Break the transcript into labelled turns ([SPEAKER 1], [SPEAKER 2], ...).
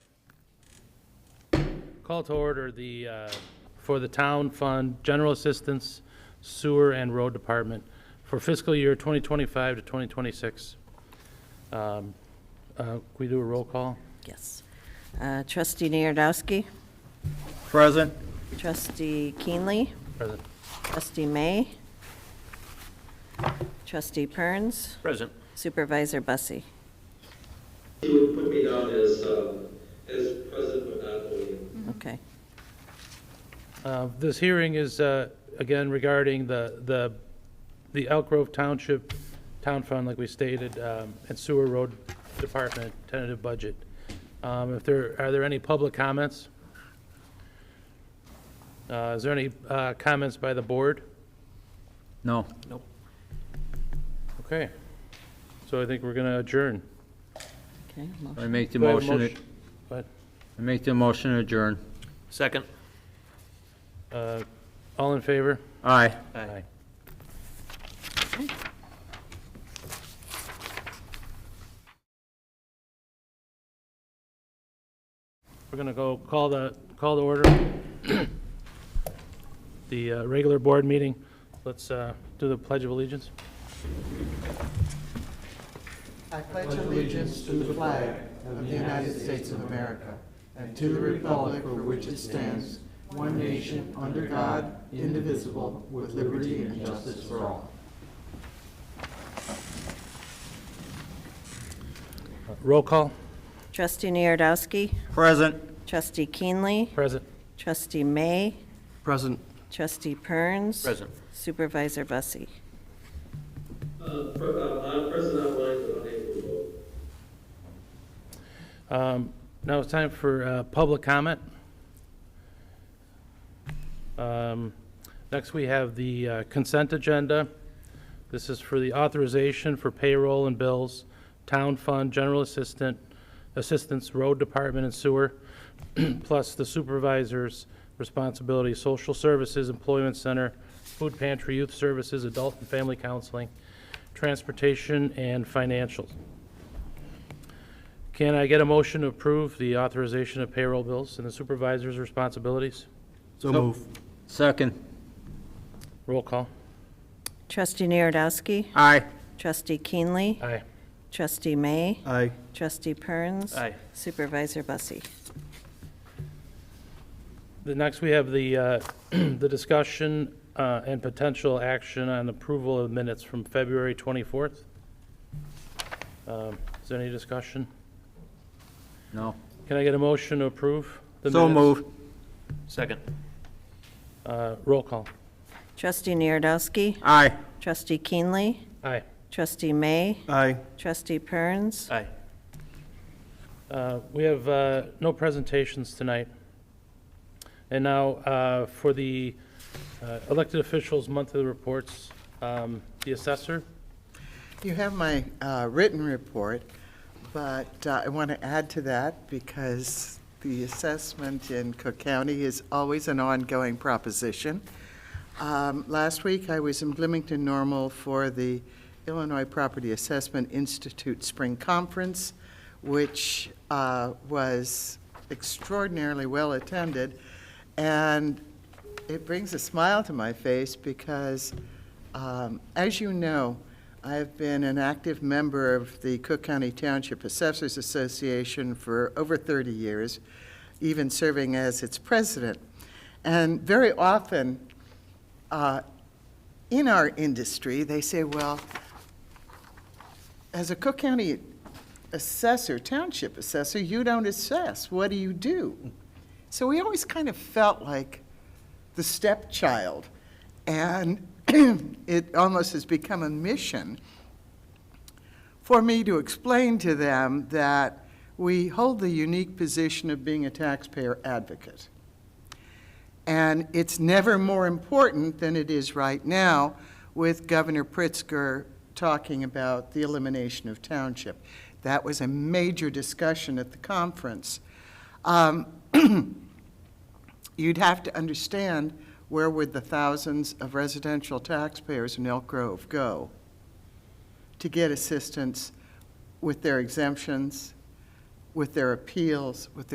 [SPEAKER 1] Call to order the, uh, for the Town Fund General Assistance Sewer and Road Department for fiscal year 2025 to 2026. Um, uh, Can we do a roll call?
[SPEAKER 2] Yes. Uh, Trustee Niardowski,
[SPEAKER 3] Present.
[SPEAKER 2] trustee Keenly,
[SPEAKER 1] Present.
[SPEAKER 2] trustee May, trustee Perns,
[SPEAKER 3] Present.
[SPEAKER 2] supervisor Bussie.
[SPEAKER 4] He would put me down as, um, as present but not voting.
[SPEAKER 2] Okay.
[SPEAKER 1] Uh, This hearing is, uh, again, regarding the, the, the Elk Grove Township Town Fund, like we stated, um, and Sewer Road Department tentative budget. Um, If there, are there any public comments? Uh, Is there any uh, comments by the board?
[SPEAKER 3] No.
[SPEAKER 1] Okay. So I think we're going to adjourn.
[SPEAKER 2] Okay. mo-
[SPEAKER 3] I make the
[SPEAKER 1] Do I have a
[SPEAKER 3] motion,
[SPEAKER 1] motion? But,
[SPEAKER 3] I make the motion adjourn.
[SPEAKER 5] Second.
[SPEAKER 1] uh, all in favor?
[SPEAKER 3] Aye.
[SPEAKER 1] Aye. We're going to go call the, call the order, the uh, regular board meeting. Let's uh, do the Pledge of Allegiance.
[SPEAKER 6] I pledge allegiance to the flag of the United States of America and to the republic for which it stands, one nation, under God, indivisible, with liberty and justice for all.
[SPEAKER 1] Roll call,
[SPEAKER 2] Trustee Niardowski,
[SPEAKER 3] Present.
[SPEAKER 2] trustee Keenly,
[SPEAKER 1] present.
[SPEAKER 2] trustee May,
[SPEAKER 3] Present.
[SPEAKER 2] trustee Perns.
[SPEAKER 5] Present.
[SPEAKER 2] Supervisor Bussie.
[SPEAKER 4] Uh, pre- uh, I'm present online, but unable to vote.
[SPEAKER 1] Um, Now it's time for uh, public comment. Um, Next, we have the uh, consent agenda. This is for the authorization for payroll and bills, town fund, general assistant, assistance, road department and sewer, plus the supervisor's responsibility, social services, employment center, food pantry, youth services, adult and family counseling, transportation, and financials. Can I get a motion to approve the authorization of payroll bills and the supervisor's responsibilities?
[SPEAKER 3] So move. Second.
[SPEAKER 1] Roll call.
[SPEAKER 2] Trustee Niardowski,
[SPEAKER 3] Aye.
[SPEAKER 2] trustee Keenly,
[SPEAKER 1] Aye.
[SPEAKER 2] trustee May,
[SPEAKER 3] Aye.
[SPEAKER 2] trustee Perns.
[SPEAKER 5] Aye.
[SPEAKER 2] Supervisor Bussie.
[SPEAKER 1] The next, we have the, uh, the discussion uh, and potential action on approval of minutes from February 24th. Um, Is there any discussion?
[SPEAKER 3] No.
[SPEAKER 1] Can I get a motion to approve the minutes?
[SPEAKER 3] So move.
[SPEAKER 5] Second.
[SPEAKER 1] Uh, Roll call.
[SPEAKER 2] Trustee Niardowski,
[SPEAKER 3] Aye.
[SPEAKER 2] trustee Keenly,
[SPEAKER 1] Aye.
[SPEAKER 2] trustee May,
[SPEAKER 3] Aye.
[SPEAKER 2] Trustee Perns,
[SPEAKER 5] Aye.
[SPEAKER 1] Uh, We have uh, no presentations tonight. And now, uh, for the uh, elected officials' monthly reports, um, the assessor,
[SPEAKER 6] You have my uh, written report, but uh, I want to add to that because the assessment in Cook County is always an ongoing proposition. Um, Last week, I was in Bloomington Normal for the Illinois Property Assessment Institute Spring Conference, which uh, was extraordinarily well-attended, and it brings a smile to my face because, um, as you know, I have been an active member of the Cook County Township Assessors Association for over 30 years, even serving as its president. And very often, uh, in our industry, they say, well, as a Cook County assessor, township assessor, you don't assess. What do you do? So we always kind of felt like the stepchild. And it almost has become a mission for me to explain to them that we hold the unique position of being a taxpayer advocate. And it's never more important than it is right now with Governor Pritzker talking about the elimination of township. That was a major discussion at the conference. Um, You'd have to understand where would the thousands of residential taxpayers in Elk Grove go to get assistance with their exemptions, with their appeals, with their